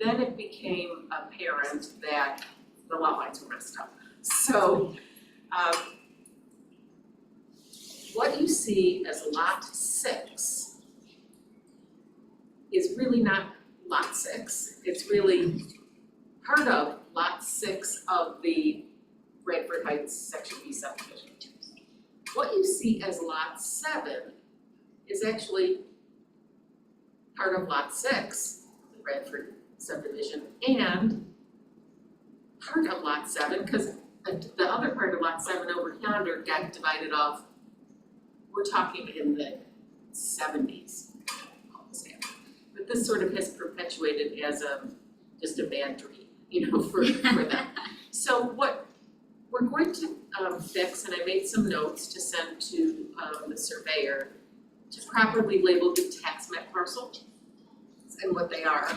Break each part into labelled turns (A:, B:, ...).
A: Then it became apparent that the lot lines were messed up. So, um, what you see as lot six is really not lot six, it's really part of lot six of the Redford Heights section B subdivision. What you see as lot seven is actually part of lot six, the Redford subdivision, and part of lot seven, cause the the other part of lot seven over yonder got divided off. We're talking in the seventies, but this sort of has perpetuated as a, just a bad dream, you know, for for them. So what we're going to um fix, and I made some notes to send to um the surveyor to properly label the tax map parcel and what they are.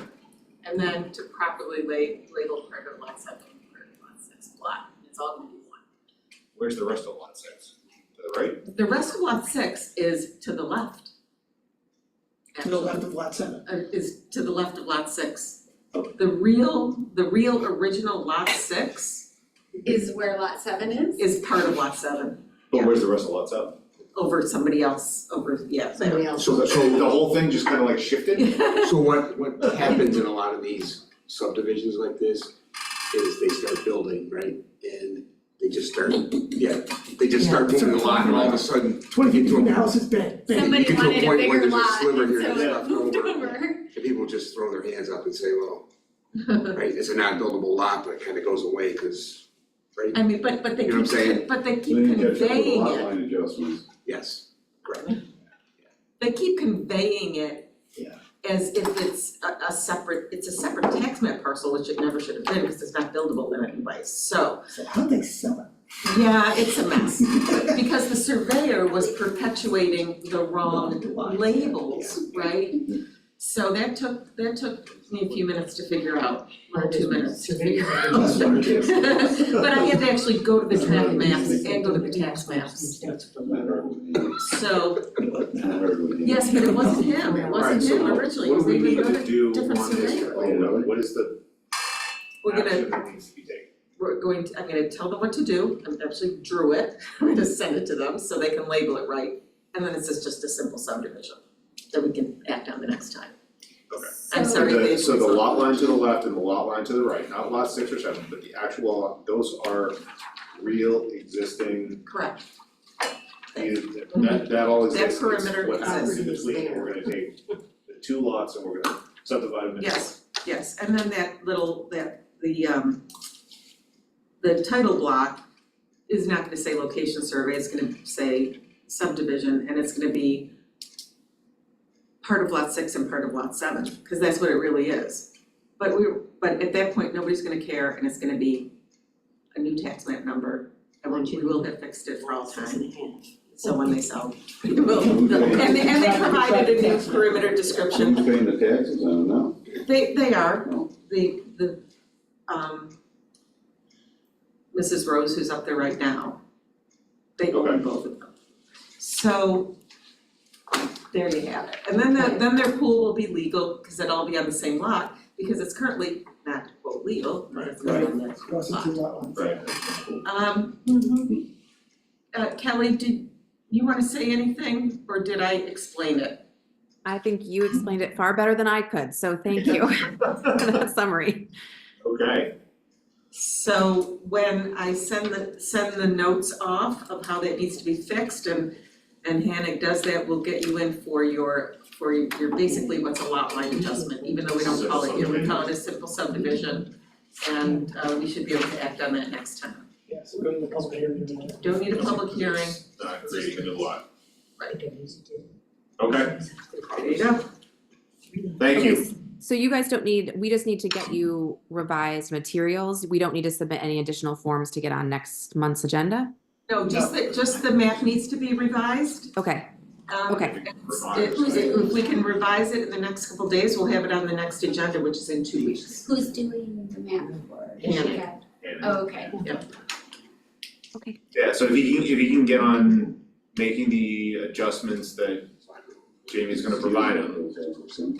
A: And then to properly la- label part of lot seven, part of lot six, lot, it's all gonna be one.
B: Where's the rest of lot six? To the right?
A: The rest of lot six is to the left.
C: to the left of lot seven.
A: Uh, is to the left of lot six.
C: Okay.
A: The real, the real original lot six
D: is where lot seven is?
A: is part of lot seven,
B: But where's the rest of lot seven?
A: over somebody else, over, yeah, there.
D: Somebody else.
E: So the,
B: So the
E: so,
B: whole thing just kind of like shifted?
E: so what, what happens in a lot of these subdivisions like this is they start building, right? And they just start, yeah, they just start moving a lot and all of a sudden,
C: Twenty feet from the house is bad, bad.
E: you
D: Somebody
E: get to a
D: wanted a
E: point where
D: bigger
E: there's a
D: lot,
E: sliver here
D: and so
E: and
D: it
E: stuff
D: moved
E: over.
D: over.
E: the people just throw their hands up and say, well, right, it's a non-buildable lot, but it kind of goes away because, right?
A: I mean, but but they
E: You know what
A: keep,
E: I'm saying?
A: but they
F: Then
A: keep
F: you catch up with the
A: conveying
F: lot
A: it,
F: line adjustments.
E: Yes, correct.
A: they keep conveying it
C: Yeah.
A: as if it's a a separate, it's a separate tax map parcel, which it never should have been, because it's not buildable in any way, so.
C: So how do they sell it?
A: Yeah, it's a mess, because the surveyor was perpetuating the wrong labels, right? So that took, that took me a few minutes to figure out, or two minutes to figure out.
C: That's what it is.
A: But I had to actually go to the tax maps and go to the tax maps,
C: That's what
F: I heard with you.
A: so,
F: I heard with you.
A: yes, but it wasn't him, it wasn't him originally, it was even another- different surveyor.
B: what is the
A: We're gonna,
B: that needs to be taken?
A: we're going to, I'm gonna tell them what to do, I actually drew it, I'm gonna send it to them so they can label it right. And then it's just a simple subdivision that we can act on the next time. I'm
D: So-
A: sorry,
B: The-
A: they-
B: So the lot line to the left and the lot line to the right, not lot six or seven, but the actual, lot- those are real existing,
A: Correct,
B: that that all
A: That
B: exists, it's
A: perimeter
B: what happens in
A: exists.
B: between, and we're gonna take the two lots and we're gonna subdivide them into.
A: yes, yes, and then that little, that, the um. The title block is not gonna say location survey, it's gonna say subdivision, and it's gonna be. Part of lot six and part of lot seven, cause that's what it really is. But we, but at that point, nobody's gonna care and it's gonna be a new tax map number, and we will have fixed it for all time. So when they sell, we will, and they, and they provided a new perimeter description
F: Who's paying the taxes on it now?
A: They, they are,
F: No.
A: the, the, um, Mrs. Rose, who's up there right now, they own
B: Okay.
A: both of them. So, there you have it, and then the, then their pool will be legal, cause it'll all be on the same lot, because it's currently not quote legal, but it's not on that
C: Cross it to lot lines.
B: Right.
A: Um,
D: Mhm.
A: uh, Kelly, did you wanna say anything, or did I explain it?
G: I think you
B: Um,
G: explained it far better than I could, so thank you for that summary.
B: Okay,
A: So when I send the, send the notes off of how that needs to be fixed and, and Hannah does that, we'll get you in for your, for your, basically what's a lot line adjustment, even though we don't call it, here, we call it a simple subdivision. And, uh, we should be able to act on that next time.
C: Yeah, so we're in the public area.
A: Don't need a public hearing,
B: not creating a new lot,
H: Okay.
B: okay,
A: there you go.
B: thank you.
G: Okay, s- So you guys don't need, we just need to get you revised materials. We don't need to submit any additional forms to get on next month's agenda?
A: No, just the, just the map needs to be revised.
G: Okay,
A: Um,
G: Okay.
A: If, if we can revise it in the next couple days, we'll have it on the next agenda, which is in two weeks.
D: Who's doing the map for? Is she got-
B: And-
D: Oh, okay.
B: Yeah, so if you can, if you can get on making the adjustments that Jamie's gonna provide them,